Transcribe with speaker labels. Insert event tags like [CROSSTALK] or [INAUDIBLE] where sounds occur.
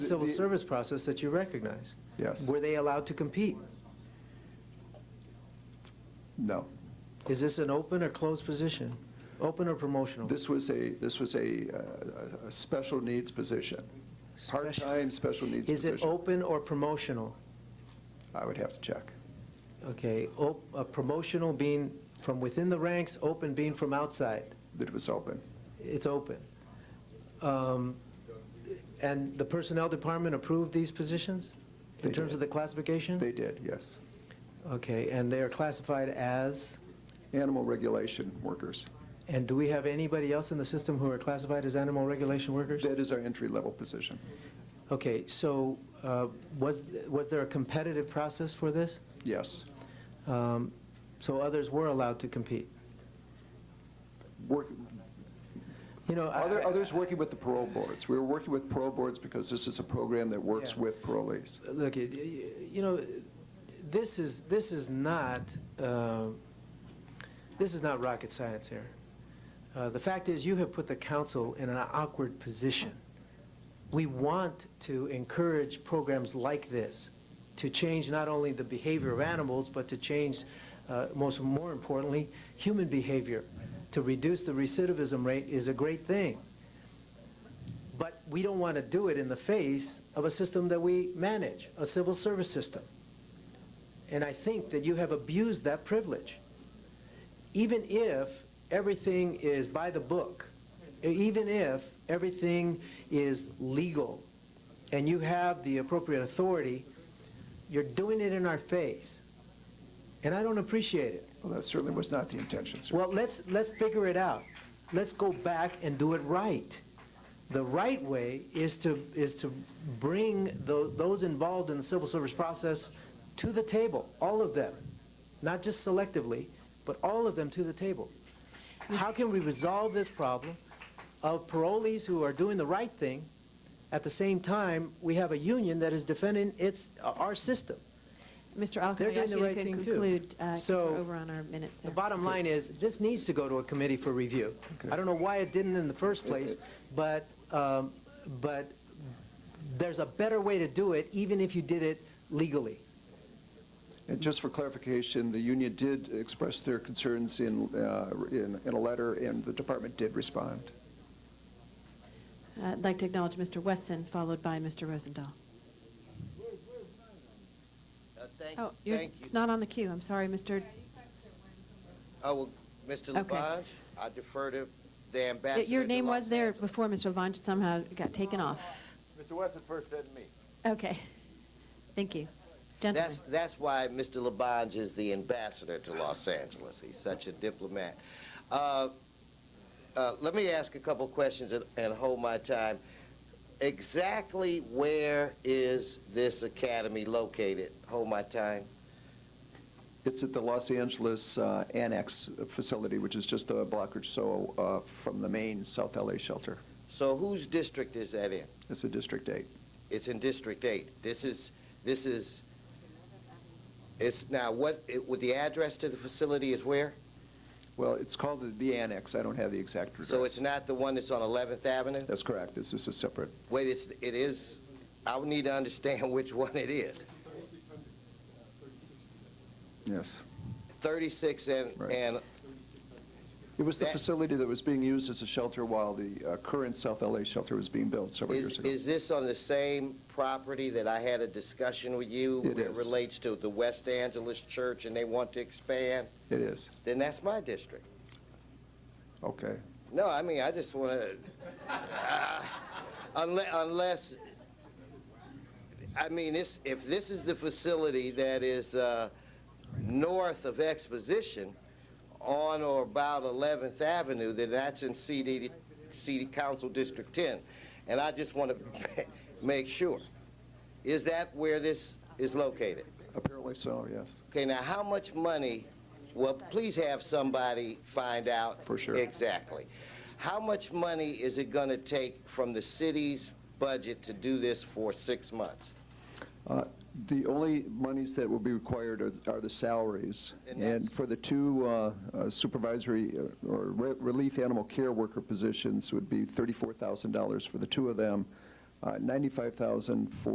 Speaker 1: civil
Speaker 2: the-
Speaker 1: service process that you recognize.
Speaker 2: Yes,
Speaker 1: Were they allowed to compete?
Speaker 2: no.
Speaker 1: Is this an open or closed position? Open or promotional?
Speaker 2: This was a, this was a, uh, a- a special needs position,
Speaker 1: Special-
Speaker 2: part-time special needs
Speaker 1: Is it
Speaker 2: position.
Speaker 1: open or promotional?
Speaker 2: I would have to check.
Speaker 1: Okay, op- uh, promotional being from within the ranks, open being from outside.
Speaker 2: That it was open.
Speaker 1: It's open. Um, And the Personnel Department approved these positions in
Speaker 2: They
Speaker 1: terms
Speaker 2: did.
Speaker 1: of the classification?
Speaker 2: They did, yes.
Speaker 1: Okay, and they are classified as,
Speaker 2: Animal regulation workers.
Speaker 1: and do we have anybody else in the system who are classified as animal regulation workers?
Speaker 2: That is our entry-level position.
Speaker 1: Okay, so uh, was, was there a competitive process for this?
Speaker 2: Yes.
Speaker 1: Um, So others were allowed to compete?
Speaker 2: Work,
Speaker 1: You know, I-
Speaker 2: other, others working with the parole boards. We were working with parole boards because this is a program that works
Speaker 1: Yeah.
Speaker 2: with parolees.
Speaker 1: look, it- you know, this is, this is not, uh, this is not rocket science here. Uh, The fact is, you have put the council in an awkward position. We want to encourage programs like this to change not only the behavior of animals, but to change, uh, most, more importantly, human behavior. To reduce the recidivism rate is a great thing. But we don't want to do it in the face of a system that we manage, a civil service system. And I think that you have abused that privilege. Even if everything is by the book, even if everything is legal and you have the appropriate authority, you're doing it in our face. And I don't appreciate it.
Speaker 2: Well, that certainly was not the intention, sir.
Speaker 1: Well, let's, let's figure it out. Let's go back and do it right. The right way is to, is to bring tho- those involved in the civil service process to the table, all of them, not just selectively, but all of them to the table. How can we resolve this problem of parolees who are doing the right thing? At the same time, we have a union that is defending its, our system.
Speaker 3: Mr. Al, can
Speaker 1: They're
Speaker 3: I
Speaker 1: doing
Speaker 3: ask
Speaker 1: the
Speaker 3: you
Speaker 1: right
Speaker 3: to
Speaker 1: thing,
Speaker 3: con-
Speaker 1: too.
Speaker 3: conclude? uh, 'cause
Speaker 1: So,
Speaker 3: we're over on our minutes
Speaker 1: The
Speaker 3: there.
Speaker 1: bottom line is, this needs to go to a committee for review. I don't know why it didn't in the first place, but, um, but there's a better way to do it, even if you did it legally.
Speaker 2: And just for clarification, the union did express their concerns in, uh, in, in a letter, and the department did respond.
Speaker 3: Uh, I'd like to acknowledge Mr. Weston, followed by Mr. Rosendahl.
Speaker 4: Uh, Thank,
Speaker 3: Oh, you're-
Speaker 4: thank
Speaker 3: it's
Speaker 4: you.
Speaker 3: not on the queue. I'm sorry, Mr.
Speaker 4: I will, Mr.
Speaker 3: Okay.
Speaker 4: Labange, I defer to the ambassador.
Speaker 3: Your
Speaker 4: to
Speaker 3: name
Speaker 4: Los
Speaker 3: was there
Speaker 4: Angeles.
Speaker 3: before, Mr. Levine, somehow it got taken off.
Speaker 5: Mr. Weston first, then me.
Speaker 3: Okay. Thank you. Gentlemen,
Speaker 4: That's, that's why Mr. Labange is the ambassador to Los Angeles. He's such a diplomat. Uh, uh, Let me ask a couple questions and- and hold my time. Exactly where is this academy located? Hold my time.
Speaker 2: It's at the Los Angeles uh, Annex facility, which is just a block or so uh, from the main South LA shelter.
Speaker 4: So whose district is that in?
Speaker 2: It's a District 8.
Speaker 4: It's in District Eight. This is, this is, it's now what, it- with the address to the facility is where?
Speaker 2: Well, it's called the- the Annex, I don't have the exact address.
Speaker 4: So it's not the one that's on 11th Avenue?
Speaker 2: That's correct, this is a separate,
Speaker 4: Wait, it's, it is, I would need to understand [LAUGHS] which one it is.
Speaker 2: yes.
Speaker 4: 36 and,
Speaker 2: Right.
Speaker 4: and,
Speaker 2: It was the
Speaker 4: That-
Speaker 2: facility that was being used as a shelter while the uh, current South LA shelter was being built several years
Speaker 4: is,
Speaker 2: ago.
Speaker 4: is this on the same property that I had a discussion with you?
Speaker 2: It
Speaker 4: that
Speaker 2: is.
Speaker 4: relates to the West Angeles Church and they want to expand?
Speaker 2: It is,
Speaker 4: Then that's my district.
Speaker 2: okay.
Speaker 4: No, I mean, I just want to, unless, unless, I mean, this, if this is the facility that is uh, north of Exposition, on or about 11th Avenue, then that's in CD, CD Council District 10. And I just want to [LAUGHS] make sure, is that where this is located?
Speaker 2: Apparently so, yes.
Speaker 4: Okay, now, how much money, well, please have somebody find out.
Speaker 2: For sure.
Speaker 4: Exactly. How much money is it going to take from the city's budget to do this for six months?
Speaker 2: Uh, The only monies that will be required are- are the salaries. And
Speaker 4: And that's-
Speaker 2: for the two uh, uh, supervisory uh, or re- relief animal care worker positions would be $34,000 for the two of them, uh, 95,000 for